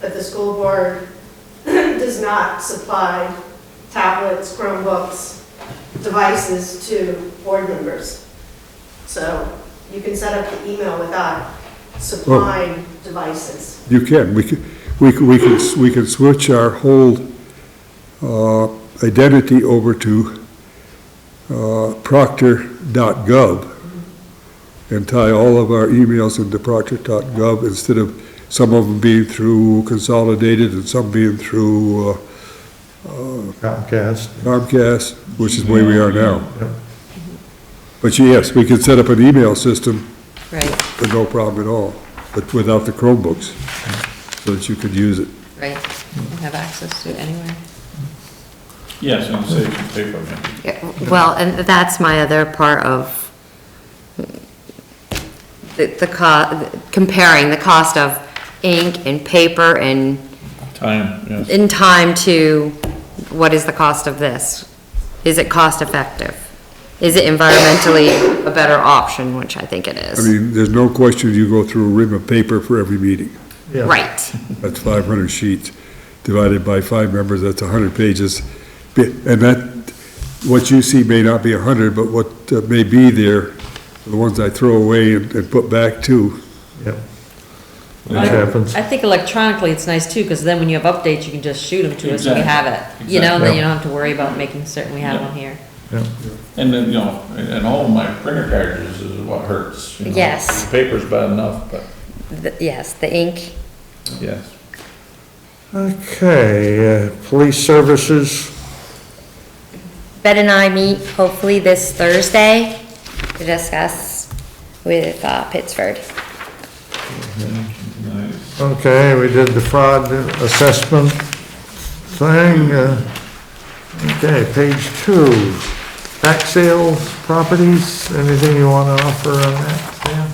that the school board does not supply tablets, Chromebooks, devices to board members. So you can set up the email without supplying devices. You can, we could, we could, we could, we could switch our whole, uh, identity over to, uh, proctor.gov and tie all of our emails into proctor.gov instead of some of them being through consolidated and some being through uh, Comcast. Comcast, which is the way we are now. Yep. But yes, we could set up an email system Right, with no problem at all, but without the Chromebooks, so that you could use it. right, and have access to it anywhere. Yes, and it saves you paper, man. Yeah, Well, and that's my other part of the, the co, comparing the cost of ink and paper and time, yes. in time to what is the cost of this? Is it cost effective? Is it environmentally a better option, which I think it I is? mean, there's no question you go through a rim of paper for every meeting. Yeah. Right, That's 500 sheets divided by five members, that's 100 pages. Be- And that, what you see may not be 100, but what uh, may be there, the ones I throw away and and put back too. Yep. Which I- happens. I think electronically it's nice too, because then when you have updates, you can just shoot them to us and we Exactly. have it. You know, and then Exactly. you don't have to worry about making certain we have Yeah. them here. Yep. And then, you know, and all my printer cartridges is what hurts. you know. Yes. The Paper's bad enough, but, The- yes, the ink, yes. Okay, uh, police services, Ben and I meet hopefully this Thursday to discuss with uh, Pittsford. Nice. okay, we did the fraud assessment thing. uh, Okay, page two, back sales, properties, anything you want to offer on that, Sam?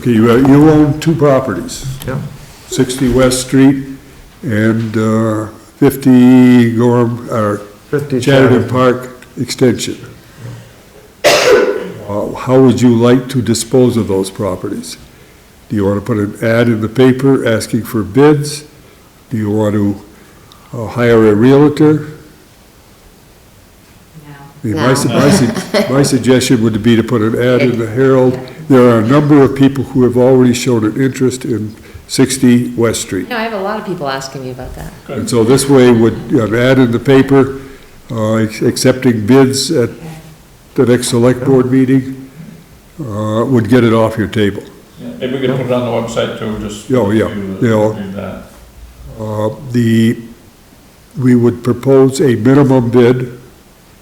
Okay, you uh, you own two properties, Yep, 60 West Street and uh, 50 Gorham, or 50 Chatterton Chatterton. Park Extension. Uh, How would you like to dispose of those properties? Do you want to put an ad in the paper asking for bids? Do you want to uh, hire a realtor? I mean, My, su- my su- my suggestion would be to put an ad in the Herald. There are a number of people who have already shown an interest in 60 West Street. You know, I have a lot of people asking me about that. And so this way would, an ad in the paper, uh, accepting bids at the next select board meeting, uh, would get it off your table. Yeah, Maybe we could put it on the website too, just. Oh, yeah, review the- yeah. review that. Uh, the, we would propose a minimum bid,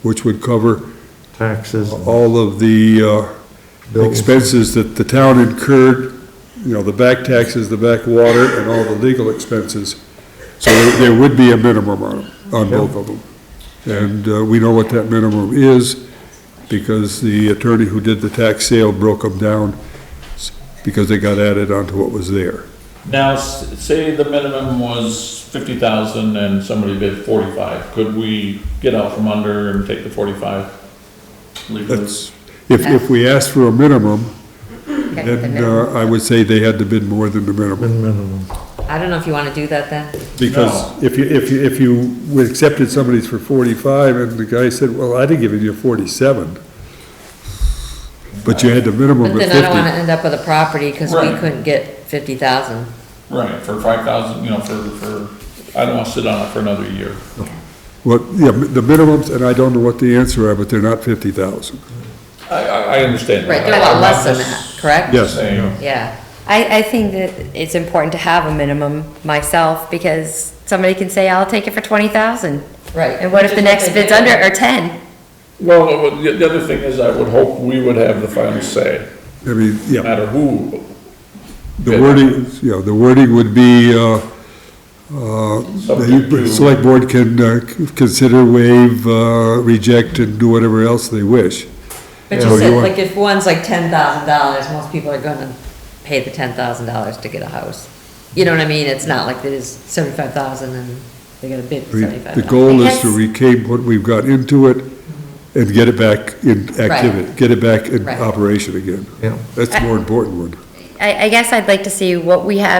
which would cover Taxes. all of the, uh, Bills. expenses that the town incurred, you know, the back taxes, the back water, and all the legal expenses. So there there would be a minimum on, 'em, on both of them. And uh, we know what that minimum is, because the attorney who did the tax sale broke them down, s- because they got added onto what was there. Now, s- say the minimum was fifty thousand and somebody bid forty-five, could we get out from under and take the forty-five? legally? That's, if, if we asked for a minimum, Okay, the then minimum. uh, I would say they had to bid more than the minimum. Minimum. I don't know if you want to do that then. Because if you, if you, if you accepted somebody's for forty-five, and the guy said, well, I'd have given you forty-seven, but you had the minimum But of then I don't want to fifty. end up with a property because we Right. couldn't get fifty thousand. Right, for five thousand, you know, for, for, I don't wanna sit on it for another year. Well, yeah, the minimums, and I don't know what the answer are, but they're not fifty thousand. I, I, I understand. Right, that. they're a lot I'm less than just that, correct? Yes. Saying, Yeah, I, I think that it's important to have a minimum myself, because somebody can say, I'll take it for twenty thousand. right. And what if the next bid's under, or ten? Well, the, the other thing is, I would hope we would have the final say, I mean, no yeah, matter who. the wording, you know, the wording would be, uh, uh, Subject the to- select board can, uh, consider, waive, uh, reject, and do whatever else they wish. But Yeah. you You said, want- like, if one's like ten thousand dollars, most people are gonna pay the ten thousand dollars to get a house. You know what I mean? It's not like there's seventy-five thousand and they gotta bid I mean, seventy-five The thousand. goal is to reclaim what we've got into it and get it back in activity, get it back in Right. operation again. Yeah. That's the more important one. I, I guess I'd like to see what we have